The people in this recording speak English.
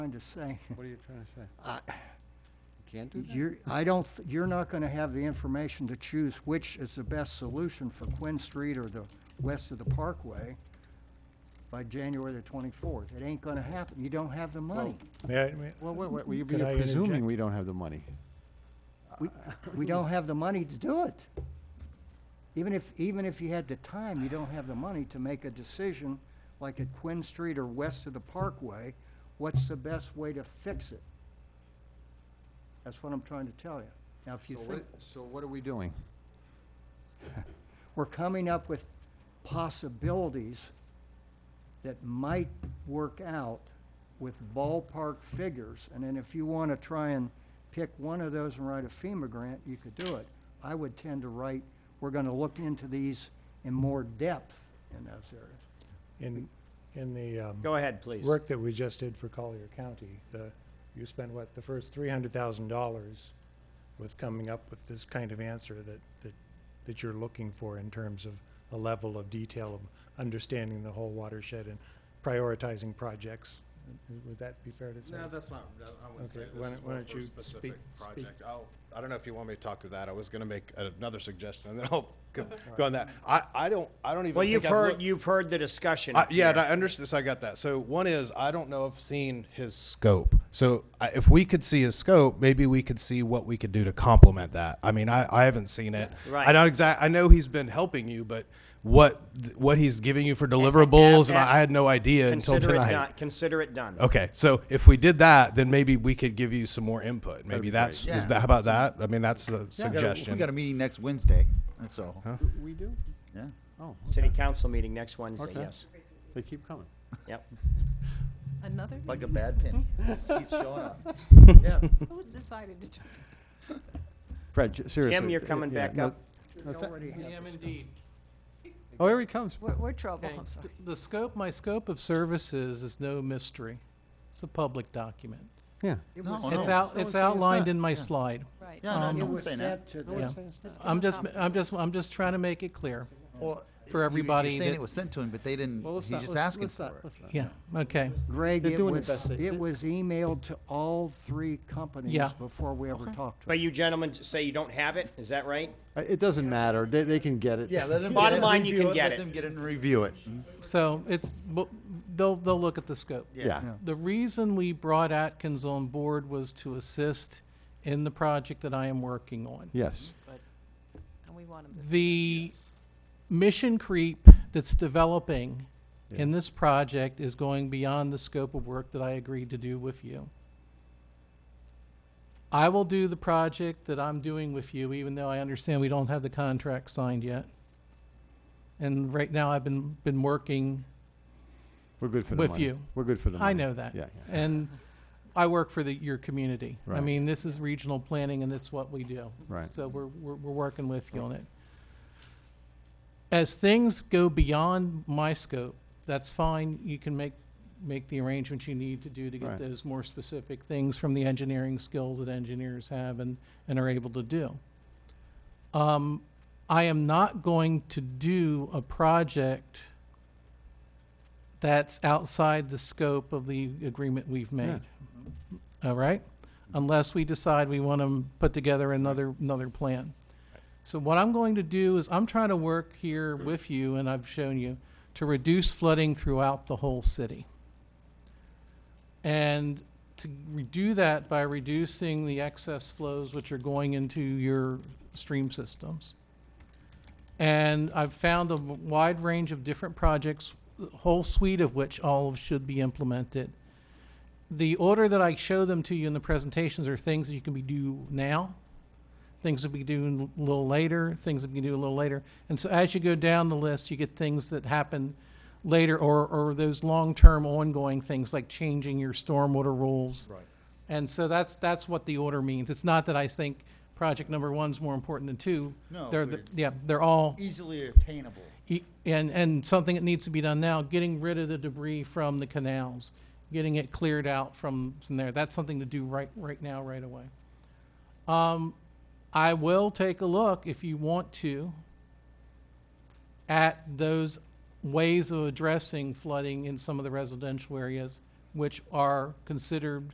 trying to say, What are you trying to say? I- You Can't do that? you're, I don't, th- you're not gonna have the information to choose which is the best solution for Quinn Street or the west of the Parkway by January the twenty-fourth. It ain't gonna happen. You don't have the money. May I- may- Well, wait, wait, we- Could we I are interject? presuming we don't have the money. We, we don't have the money to do it. Even if, even if you had the time, you don't have the money to make a decision, like at Quinn Street or west of the Parkway, what's the best way to fix it? That's what I'm trying to tell you. Now, if you So think, what, so what are we doing? we're coming up with possibilities that might work out with ballpark figures, and then if you wanna try and pick one of those and write a FEMA grant, you could do it. I would tend to write, we're gonna look into these in more depth in those areas. in, in the, um, Go ahead, please. work that we just did for Collier County, the, you spent what, the first three hundred thousand dollars with coming up with this kind of answer that, that, that you're looking for in terms of a level of detail of understanding the whole watershed and prioritizing projects. Would that be fair to say? No, that's not, that- I wouldn't say Okay, this is why more don't- why for a don't you speak- specific speak. project. I'll, I don't know if you want me to talk to that, I was gonna make another suggestion, and then I'll go go on that. I, I don't, I don't even. Well, you've think I've heard, looked- you've heard the discussion. I- Uh, yeah, here. and I understand. So I got that. So one is I don't know if seeing his scope. So I, if we could see his scope, maybe we could see what we could do to complement that. I mean, I, I haven't seen it. Right. I not exact. I know he's been helping you, but what what he's giving you for deliverables, and, I, I had no idea until Consider it tonight. done, consider it done. Okay, so if we did that, then maybe we could give you some more input. Maybe that's Yeah. is that, how about that? I mean, that's a Yeah, we got a- suggestion. We got a meeting next Wednesday, that's all. We do? Yeah. Oh, City council meeting next Wednesday, Okay. yes. they keep coming. Yep. Another? Like a meeting? bad penny. Just keeps showing up. Yeah. Who's decided to do Fred, j- seriously. Jim, you're th- coming yeah, back no- up. no, tha- Already have am this. indeed. Oh, here he comes. We're, we're trouble, Okay, I'm sorry. th- The scope, my scope of services is no mystery. It's a public document. Yeah. It No, was Oh, It's sent- no. out, one's it's saying it's outlined not. in my Yeah. slide. Right. Yeah, no, Um, no It one's was saying that. sent to Yeah. the, Just give I'm them a just, copy. I'm just, I'm just trying to make it clear. Well, for you- everybody You're saying that- it was sent to him, but they didn't, Well, let's he's not- just let's- asking let's for not- it. let's not- Yeah, okay. Greg, They're it doing the was, best they- it they- was emailed to all three companies Yeah. before we ever talked to them. But you gentlemen say you don't have it, is that right? Uh, It doesn't matter. They, they can get it. Yeah, let them. Bottom line, you can get it. Let them get it and review it. So it's, bu- they'll, they'll look at the scope. Yeah. The reason we brought Atkins on board was to assist in the project that I am working on. Yes. And we want 'em to. The mission creep that's developing in this project is going beyond the scope of work that I agreed to do with you. I will do the project that I'm doing with you, even though I understand we don't have the contract signed yet. And right now, I've been, been working We're good for the With money. you. We're good for the money. I know that. Yeah, yeah. And I work for the, your community. I Right. mean, this is regional planning and it's what we do. Right. So we're, we're, we're working with you on it. As things go beyond my scope, that's fine. You can make, make the arrangements you need to do to Right. get those more specific things from the engineering skills that engineers have and, and are able to do. Um, I am not going to do a project that's outside the scope of the agreement we've made. All right? Unless we decide we want to put together another, another plan. So what I'm going to do is, I'm trying to work here with you, and I've shown you, to reduce flooding throughout the whole city. And to re- do that by reducing the excess flows which are going into your stream systems. And I've found a w- wide range of different projects, the whole suite of which all of should be implemented. The order that I show them to you in the presentations are things that you can be do now, things that we do a little later, things that we do a little later. And so as you go down the list, you get things that happen later or, or those long-term ongoing things like changing your stormwater rules. Right. And so that's, that's what the order means. It's not that I think project number one's more important than two. No, They're, but the- it's- yeah, they're all, Easily obtainable. e- and, and something that needs to be done now, getting rid of the debris from the canals, getting it cleared out from, from there. That's something to do right, right now, right away. Um, I will take a look, if you want to, at those ways of addressing flooding in some of the residential areas which are considered